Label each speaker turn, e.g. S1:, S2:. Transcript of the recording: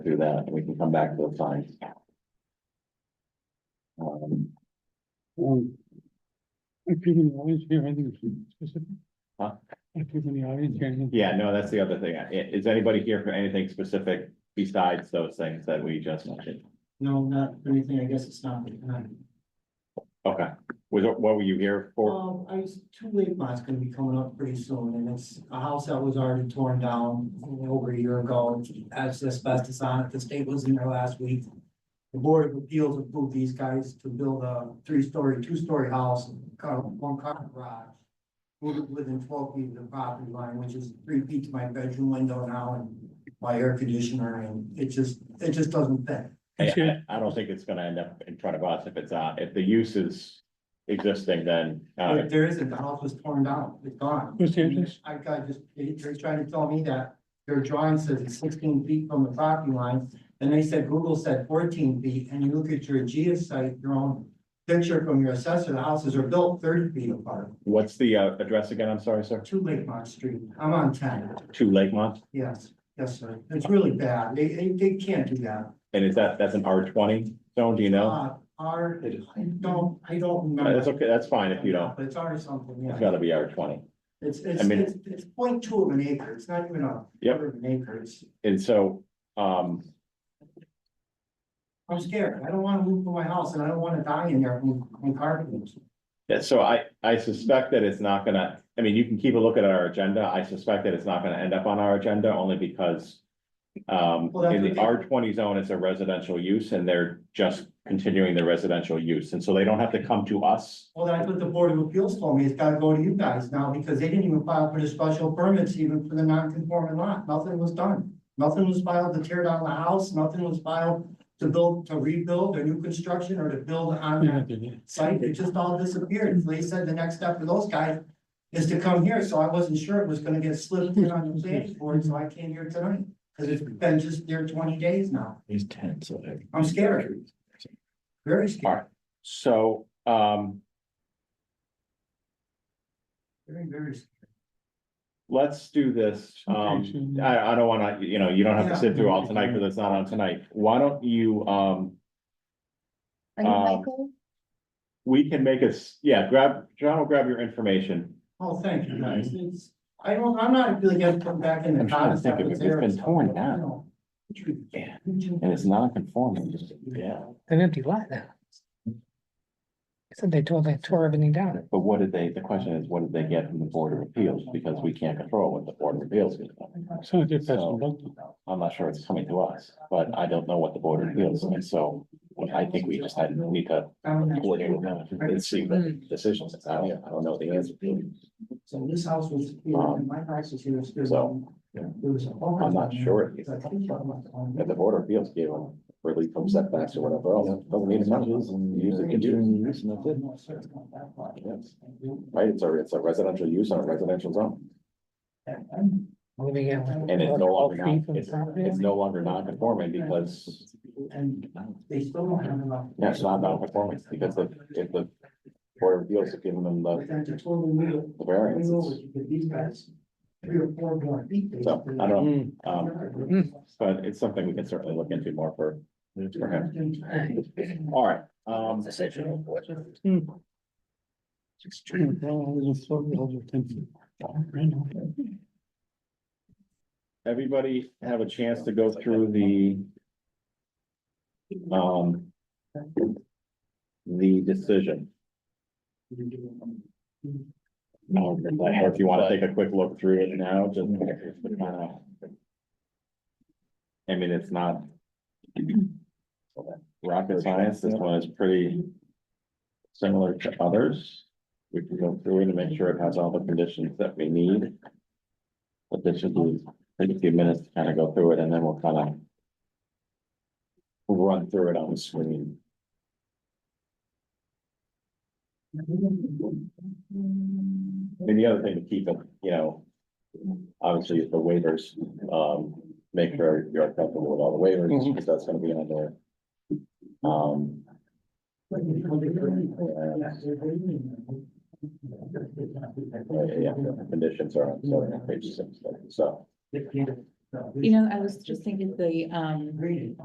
S1: through that, and we can come back to the fines. Um,
S2: Um, I think in the audience here, anything specific?
S1: Huh?
S2: I think in the audience here, anything.
S1: yeah, no, that's the other thing. I- Is anybody here for anything specific besides those things that we just mentioned?
S3: No, not for anything, I guess it's not. the time.
S1: Okay, was, it- what were you here for?
S3: Um, I was, two late lots gonna be coming up pretty soon, and it's a house that was already torn down over a year ago. As asbestos on it, the state was in there last week. The Board of Appeals approved these guys to build a three-story, two-story house, car- one car garage. Moved it within twelve feet of the property line, which is three feet to my bedroom window now and my air conditioner, and it just, it just doesn't fit.
S1: Hey,
S2: Sure.
S1: I, I don't think it's gonna end up in front of us if it's, uh, if the use is existing, then, uh,
S3: There- There isn't, the house was torn down, it's gone.
S2: Who's the address?
S3: I got just, they- they're trying to tell me that your drawing says it's sixteen feet from the property line. And they said Google said fourteen feet, and you look at your geosite, your own picture from your assessor, the houses are built thirty feet apart.
S1: what's the, uh, address again? I'm sorry, sir.
S3: Two Lakemont Street, I'm on ten,
S1: Two Lakemont,
S3: yes, yes, sir, it's really bad, they, they, they can't do that.
S1: and is that, that's an R twenty zone, do you know?
S3: Uh, Our, I don't, I don't
S1: Uh,
S3: remember.
S1: That's okay, that's fine if you don't.
S3: But it's already something, yeah.
S1: It's gotta be R twenty.
S3: It's,
S1: I
S3: it's,
S1: mean-
S3: it's, it's point two of an acre, it's not even a.
S1: Yep.
S3: quarter of An acre, it's,
S1: And so, um,
S3: I'm scared, I don't wanna move from my house and I don't wanna die in there from, from carpet.
S1: Yeah, so I, I suspect that it's not gonna, I mean, you can keep a look at our agenda. I suspect that it's not gonna end up on our agenda only because. Um,
S3: Well, that's
S1: in the
S3: okay.
S1: R twenty zone, it's a residential use and they're just continuing their residential use. And so they don't have to come to us.
S3: Well, that's what the Board of Appeals told me, it's gotta go to you guys now, because they didn't even file for the special permits even for the non-conforming lot, nothing was done. Nothing was filed to tear down the house, nothing was filed to build, to rebuild or new construction or to build on
S2: Yeah, I
S3: that
S2: did, yeah.
S3: site, it just all disappeared, so they said the next step for those guys is to come here, so I wasn't sure it was gonna get slipped in on the planning board, so I came here tonight. Cause it's been just there twenty days now,
S4: He's ten, so.
S3: I'm scared, very scared,
S1: So, um,
S3: very, very. scared.
S1: let's do this.
S2: Okay,
S1: Um,
S2: so-
S1: I, I don't wanna, you know, you don't have to
S3: Yeah.
S1: sit through all tonight because it's not on tonight. Why don't you, um,
S5: Are you
S1: Um,
S5: Michael?
S1: we can make us, yeah, grab, John will grab your information.
S3: Oh, thank you guys, it's, I don't, I'm not really gonna come back in the.
S4: I'm trying to think
S3: concept
S4: of it.
S3: there
S4: It's been
S3: and stuff,
S4: torn
S3: but, you
S4: down.
S3: know.
S4: Yeah, and it's non-conforming, just, yeah,
S6: an empty lot now. So they tore, they tore everything down.
S4: but what did they, the question is, what did they get from the Board of Appeals, because we can't control what the Board of Appeals is.
S2: So I did pass
S4: So-
S2: the buck.
S4: I'm not sure it's coming to us, but I don't know what the Board of Appeals, and so I think we just had, we need to coordinate with them and see the decisions, I don't, I don't know the answer.
S3: So this house was, here, and my house was here, it's good.
S4: Um, So, yeah.
S3: It was.
S4: I'm not sure. And the Board of Appeals gave them relief from setbacks or whatever else, doesn't need much, use it, continue to use, and that's it. Yes. Right, it's a, it's a residential use on a residential zone,
S6: Moving it. And
S4: and it's no longer, non-
S6: From the
S4: it's,
S6: property.
S4: it's no longer non-conforming because.
S3: And they still don't have enough.
S4: Yeah, it's not non-conforming, because if- if the Board of Appeals have given them
S3: But
S4: the,
S3: then to totally move,
S4: the
S3: it, move over,
S4: variance,
S3: you get these guys, three or four more feet. they-
S4: so, I don't,
S2: Hmm.
S6: Mm,
S4: know. um, but it's something we can certainly look into more for, for him, all right, um.
S2: Well, there's a floor, there's a ten feet. Randall.
S1: Everybody have a chance to go through the. Um. The decision, or Um, if you wanna take a quick look through it now, just to kind of. I mean, it's not. Rocket science, this one is pretty. Similar to others, we can go through it and make sure it has all the conditions that we need. But this should be, take a few minutes to kind of go through it and then we'll kind of. We'll run through it on the screen. And the other thing to keep, you know, obviously is the waivers, um, make sure you're comfortable with all the waivers, because that's gonna be on there. Um, yeah, yeah, the conditions are on, so, on page six, so.
S3: You know, I was just thinking the, um,
S5: Agreed.